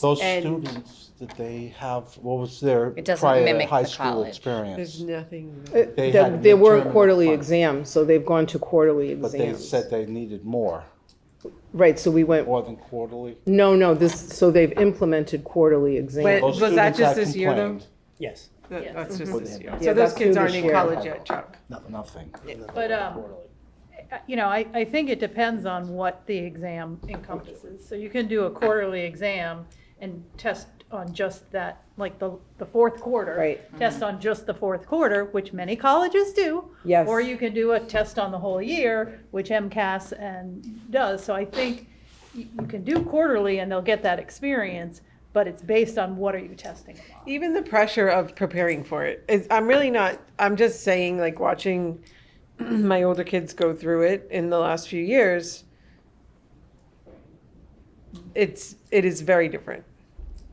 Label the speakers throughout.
Speaker 1: Those
Speaker 2: And-
Speaker 1: students, did they have, what was their
Speaker 3: It doesn't
Speaker 1: prior
Speaker 3: mimic
Speaker 1: high
Speaker 3: the
Speaker 1: school
Speaker 3: college.
Speaker 2: There's
Speaker 1: experience?
Speaker 2: nothing.
Speaker 4: Uh,
Speaker 1: They
Speaker 4: There
Speaker 1: had
Speaker 4: there were
Speaker 1: midterm
Speaker 4: quarterly
Speaker 1: and final.
Speaker 4: exams, so they've gone to quarterly
Speaker 1: But they
Speaker 4: exams.
Speaker 1: said they needed more,
Speaker 4: Right, so we went,
Speaker 1: more than quarterly.
Speaker 4: no, no, this, so they've implemented quarterly exams.
Speaker 5: But-
Speaker 1: Those
Speaker 5: Was that
Speaker 1: students
Speaker 5: just
Speaker 1: had
Speaker 5: this year, though?
Speaker 1: complained
Speaker 6: Yes,
Speaker 5: That- That's just
Speaker 1: Would
Speaker 5: this
Speaker 1: they
Speaker 5: year.
Speaker 6: have-
Speaker 4: Yeah,
Speaker 5: So those
Speaker 4: that's
Speaker 5: kids
Speaker 4: who
Speaker 5: aren't
Speaker 4: this
Speaker 5: in
Speaker 4: year.
Speaker 5: college yet, Chuck.
Speaker 1: Nothing.
Speaker 7: But, um, you know, I, I think it depends on what the exam encompasses. So you can do a quarterly exam and test on just that, like the, the fourth quarter.
Speaker 4: Right.
Speaker 7: Test on just the fourth quarter, which many colleges do.
Speaker 4: Yes.
Speaker 7: Or you can do a test on the whole year, which MCAS and does. So I think you you can do quarterly and they'll get that experience, but it's based on what are you testing them on.
Speaker 5: Even the pressure of preparing for it is, I'm really not, I'm just saying, like, watching my older kids go through it in the last few years, it's, it is very different.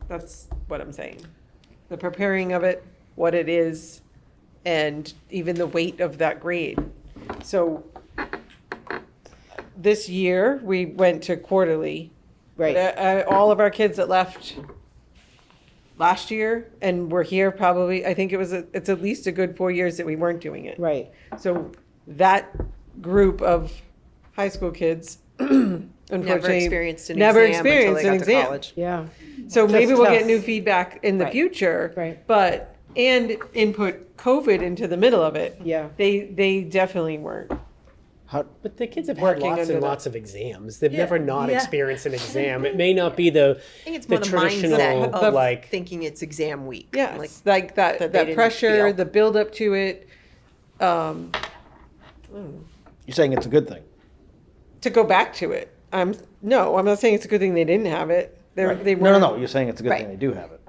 Speaker 5: That's what I'm saying. The preparing of it, what it is, and even the weight of that grade. So this year, we went to quarterly.
Speaker 4: Right.
Speaker 5: But, uh, all of our kids that left last year and we're here probably i think it was a, it's at least a good four years that we weren't doing it
Speaker 4: Right,
Speaker 5: so that group of high school kids unfortunately
Speaker 2: Never experienced an
Speaker 5: never
Speaker 2: exam until
Speaker 5: experienced
Speaker 2: they got
Speaker 5: an
Speaker 2: to
Speaker 5: exam.
Speaker 2: college.
Speaker 4: yeah,
Speaker 5: so maybe
Speaker 4: That's
Speaker 5: we'll
Speaker 4: tough.
Speaker 5: get new feedback in the
Speaker 4: Right.
Speaker 5: future
Speaker 4: Right.
Speaker 5: but and input covid into the middle of it
Speaker 4: yeah.
Speaker 5: they they definitely weren't
Speaker 6: but the kids have
Speaker 5: Working
Speaker 6: had lots
Speaker 5: under
Speaker 6: and
Speaker 5: the-
Speaker 6: lots of exams. They've
Speaker 7: Yeah.
Speaker 6: never not
Speaker 7: Yeah.
Speaker 6: experienced an exam. It may not be the
Speaker 2: I think it's
Speaker 6: the
Speaker 2: more the mindset
Speaker 6: traditional,
Speaker 2: of
Speaker 6: like-
Speaker 2: thinking it's exam week.
Speaker 5: yeah
Speaker 2: Like,
Speaker 5: it's like that
Speaker 2: that
Speaker 5: that,
Speaker 2: they didn't
Speaker 5: pressure
Speaker 2: feel.
Speaker 5: the build up to it um
Speaker 8: You're saying it's a good thing.
Speaker 5: to go back to it. I'm no, I'm not saying it's a good thing they didn't have it. They were they were
Speaker 8: No, no, no. You're saying it's a good
Speaker 2: Right.
Speaker 8: thing they do have it.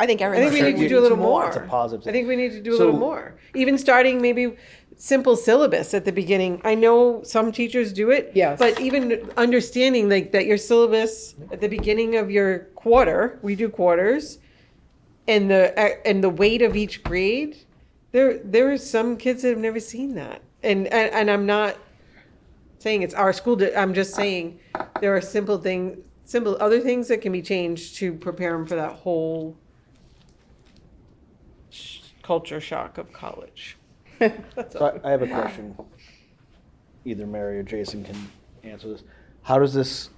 Speaker 2: I think
Speaker 5: I think we need to do a little more.
Speaker 8: It's a positive.
Speaker 5: I think we need to do a
Speaker 8: So-
Speaker 5: little more. Even starting maybe simple syllabus at the beginning. I know some teachers do it.
Speaker 4: Yes.
Speaker 5: But even understanding like that your syllabus at the beginning of your quarter, we do quarters, and the uh, and the weight of each grade. There there are some kids that have never seen that, and and, and I'm not saying it's our school. di- I'm just saying there are simple things, simple other things that can be changed to prepare them for that whole sh- culture shock of college. That's all.
Speaker 8: So I, I have a question. Either Mary or Jason can answer this. How does this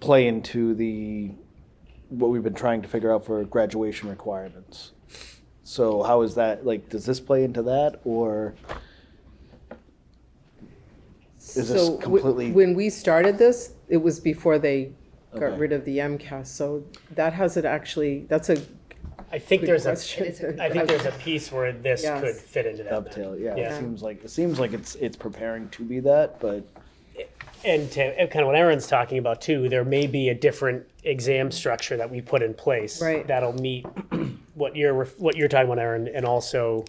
Speaker 8: play into the what we've been trying to figure out for graduation requirements? So how is that like? Does this play into that, or Is this
Speaker 4: So wh-
Speaker 8: completely-
Speaker 4: When we started this, it was before they got
Speaker 8: Okay.
Speaker 4: rid of the MCAS, so that has it actually, that's a
Speaker 6: I think
Speaker 4: good
Speaker 6: there's a
Speaker 4: question.
Speaker 6: I think there's a piece where this
Speaker 4: Yes.
Speaker 6: could fit into that.
Speaker 8: dovetail? Yeah,
Speaker 6: Yeah.
Speaker 8: it seems like it seems like it's it's preparing to be that, but
Speaker 6: and to and kind of what Aaron's talking about too, there may be a different exam structure that we put in place
Speaker 4: Right.
Speaker 6: that'll meet what you're ref- what you're talking about, Aaron, and also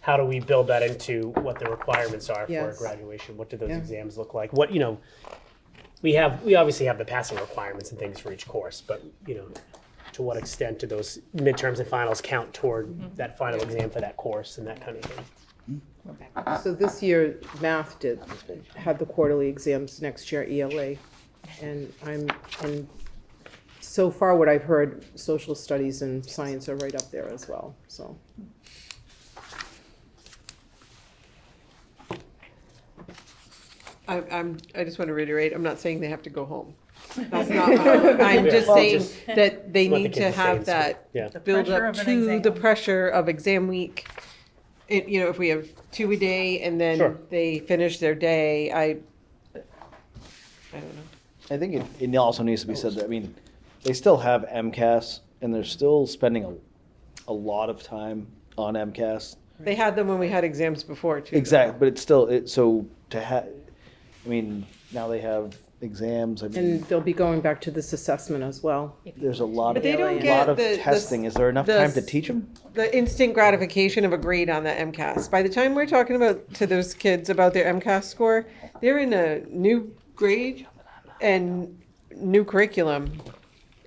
Speaker 6: how do we build that into what the requirements are
Speaker 4: Yes.
Speaker 6: for graduation? What do those
Speaker 4: Yeah.
Speaker 6: exams look like? What you know, we have we obviously have the passing requirements and things for each course, but you know, to what extent do those midterms and finals count toward
Speaker 5: Mm-hmm.
Speaker 6: that final exam for that course and that kind of thing?
Speaker 4: So this year, math did, had the quarterly exams, next year ELA. And I'm, and so far what I've heard, social studies and science are right up there as well, so.
Speaker 5: I, I'm, I just want to reiterate, I'm not saying they have to go home. That's not, what I'm I'm just
Speaker 6: Well,
Speaker 5: saying
Speaker 6: just
Speaker 5: that they
Speaker 6: let the
Speaker 5: need
Speaker 6: kids
Speaker 5: to
Speaker 6: stay in
Speaker 5: have
Speaker 6: school.
Speaker 5: that
Speaker 6: Yeah.
Speaker 5: build
Speaker 7: pressure
Speaker 5: up
Speaker 7: of an
Speaker 5: to the
Speaker 7: exam.
Speaker 5: pressure of exam week. It, you know, if we have two a day and
Speaker 6: Sure.
Speaker 5: then they finish their day, I, I don't know.
Speaker 8: I think it, it also needs to be said that, I mean, they still have MCAS and they're still spending a, a lot of time on MCAS.
Speaker 5: They had them when we had exams before too. though.
Speaker 8: Exactly, but it's still, it, so to have, I mean, now they have exams, I
Speaker 4: And
Speaker 8: mean,
Speaker 4: they'll be going back to this assessment as well.
Speaker 8: there's a lot
Speaker 5: But
Speaker 8: of,
Speaker 5: they don't
Speaker 8: lot
Speaker 5: get
Speaker 8: of
Speaker 5: the- the s-
Speaker 8: testing. Is there enough
Speaker 5: the
Speaker 8: time to
Speaker 5: s-
Speaker 8: teach them?
Speaker 5: the instant gratification of a grade on the MCAS. By the time we're talking about to those kids about their MCAS score, they're in a new grade and new curriculum.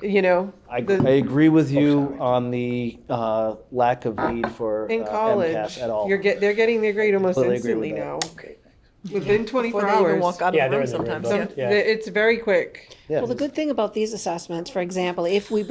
Speaker 5: You know,
Speaker 8: I,
Speaker 5: the-
Speaker 8: I agree with you on the, uh, lack of need for uh,
Speaker 5: in college,
Speaker 8: MCAS at all.
Speaker 5: you're get they're getting their grade almost
Speaker 8: Completely agree with
Speaker 5: instantly now.
Speaker 8: that.
Speaker 5: within 24
Speaker 2: Before they
Speaker 5: hours.
Speaker 2: even walk out of
Speaker 6: Yeah,
Speaker 2: the room
Speaker 6: they're in the room,
Speaker 2: sometimes,
Speaker 6: but-
Speaker 2: yeah.
Speaker 5: Some- It's very quick.
Speaker 8: Yeah,
Speaker 3: Well, the good thing about these assessments, for example, if we